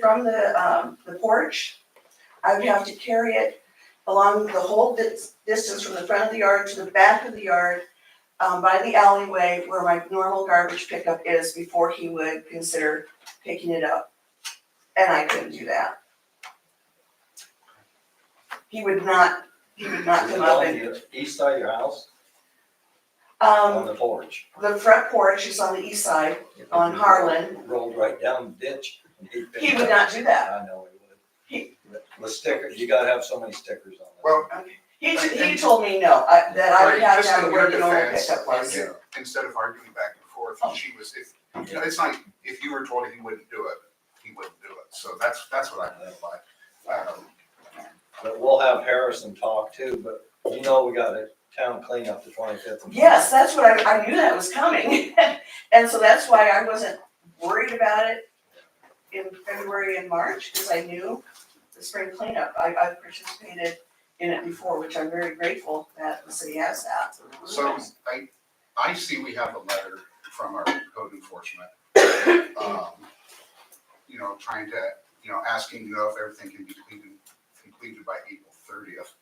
from the, um, the porch. I would have to carry it along the whole dis- distance from the front of the yard to the back of the yard, um, by the alleyway where my normal garbage pickup is before he would consider picking it up. And I couldn't do that. He would not, he would not come up and, the East side of your house, on um, the porch, the front porch is on the east side, on Harlan. rolled right down the ditch. and he'd pick He it would up. not do that. I know he He- would. The sticker, you gotta have so many stickers on it. Well, He, t- he told me no, I, that I would Right, have to just have in a your working order defense, pickup you place. get- uh, Instead of arguing back and forth, Oh. she was, if, you know, it's like, if you were told he wouldn't do it, he wouldn't do it. So that's, that's what I meant by, um, But we'll have Harrison talk too, but you know we got a town cleanup the twenty-fifth. Yes, that's what I, I knew that was coming, and so that's why I wasn't worried about it in February and March, because I knew the spring cleanup, I, I participated in it before, which I'm very grateful that the city has that. So I, I see we have a letter from our code enforcement. um, You know, trying to, you know, asking, you know, if everything can be completed, completed by April thirtieth.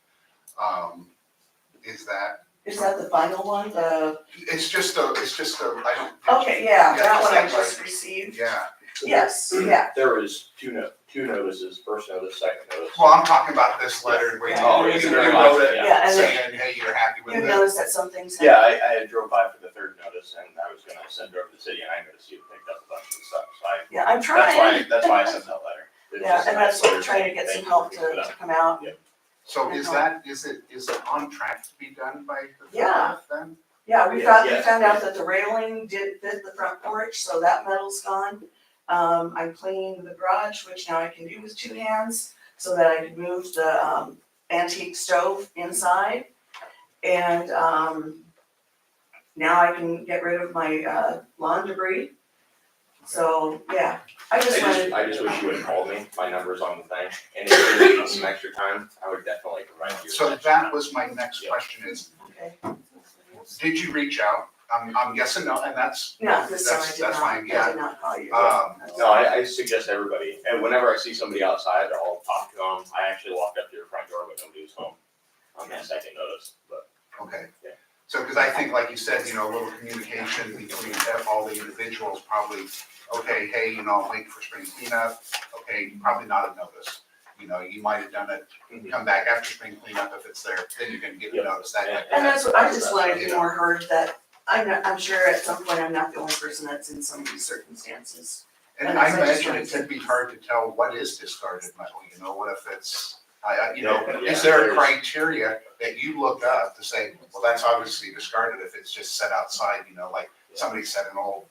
Um, Is that, Is that the final one, the, it's just a, it's just a, I don't. think- okay, yeah, that one I Yeah, just received, Yeah, yes, yeah, There is two no, two notices, first notice, second notice. well, I'm talking about this letter where you. Oh, you it's wrote very it Yeah. yeah, and then Saying, hey, you're happy with you it. noticed that something's Yeah, happened. I, I had drove by for the third notice and I was gonna send her over to the city and I noticed you had picked up a bunch of stuff, so I, Yeah, I'm trying. that's why, that's why I sent that letter. It's Yeah, just and not that's why I'm clear. trying to get some Thank you help to, for that. to come out. So is that, is it, is it on track to be done by the Yeah. thirtieth then? Yeah, we Yeah, found, we yeah. found out that the railing did fit the front porch, so that metal's gone. Um, I'm cleaning the garage, which now I can do with two hands, so that I can move the, um, antique stove inside. And, um, now I can get rid of my, uh, lawn debris. So, yeah, I I just just, wanted, I just wish you would call me, my number's on the thing, and if you need some extra time, I would definitely provide you. So that was my next Yeah. question is, okay, did you reach out? I'm, I'm guessing no, and that's, no, this time I That's- did that's not, I fine, yeah. did not call you. um, No, I, I suggest everybody, and whenever I see somebody outside, I'll talk to them, I actually walked up to your front door when nobody's home on that second notice, but okay. Yeah. So, because I think, like you said, you know, a little communication between all the individuals probably, okay, hey, you know, I'm waiting for spring cleanup, okay, probably not a notice. You know, you might have done it, Mhm. come back after spring cleanup if it's there, then you're gonna get a Yeah. notice that. Yeah. And that's what, I just wanted to more heard that, I'm not, I'm sure at some point I'm not the only person that's in some of these circumstances. And I imagine it could be hard to tell what is discarded metal, you know, what if it's, I, I, you know, Yeah, is there a yeah. criteria that you look up to say, well, that's obviously discarded if it's just set outside, you know, like somebody set an old,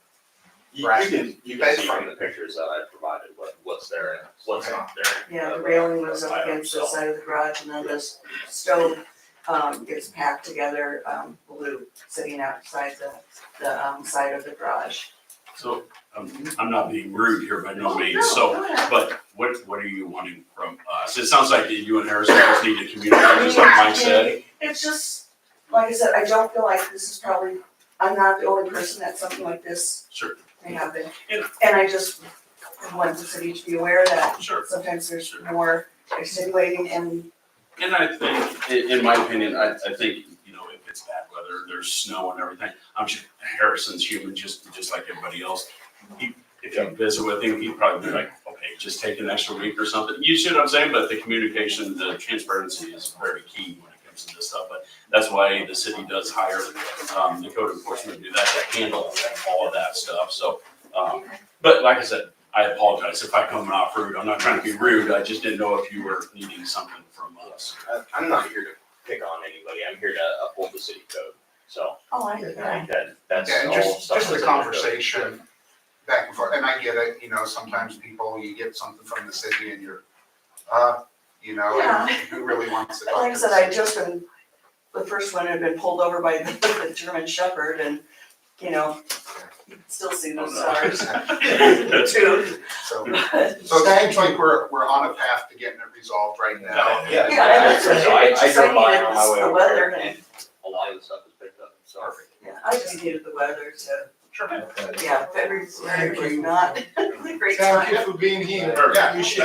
you, you Right. can, you can see from the pictures that I provided what, what's there and what's not there. Uh, Yeah, the railing was up against the side of the garage and then this stove, um, gets packed together, um, blue, sitting outside the, the, um, side of the garage. So, um, I'm not being rude here by no Oh, means, so, but what, what are you wanting from us? It sounds like you and Harrison just need to communicate, just like Mike said. It's just, like I said, I don't feel like this is probably, I'm not the only person that something like this Sure, may happen. And I just want the city to be aware that sure. sometimes there's more extenuating and, And I think, in, in my opinion, I, I think, you know, if it's bad weather, there's snow and everything, I'm sure Harrison's human, just, just like everybody else. He- If you visit with him, he'd probably be like, okay, just take an extra week or something. You see what I'm saying? But the communication, the transparency is very key when it comes to this stuff. But that's why the city does hire, um, the code enforcement to do that, to handle all of that stuff, so. Um, but like I said, I apologize if I come off rude. I'm not trying to be rude. I just didn't know if you were needing something from us. I, I'm not here to pick on anybody, I'm here to uphold the city code, so oh, I, I I, think that, that's yeah, and all. just, stuff just the that's in code. conversation back and forth. And I get it, you know, sometimes people, you get something from the city and you're, uh, you know, and Yeah. who really wants to talk like I to said, the I city? just been, the first one had been pulled over by the, the German Shepherd and, you know, you can still see those Oh, no. stars too. So, But, so it seems like we're, we're on a path to getting it resolved right now. Yeah, Yeah, and that's- so I, it's I just drove by saying on it's my way the over weather there and- and a lot of the stuff is picked up, so. Perfect. yeah, I just needed the weather to Sure. Okay. yeah, February was not a great time. Thank you for being here. Perfect. Appreciate it.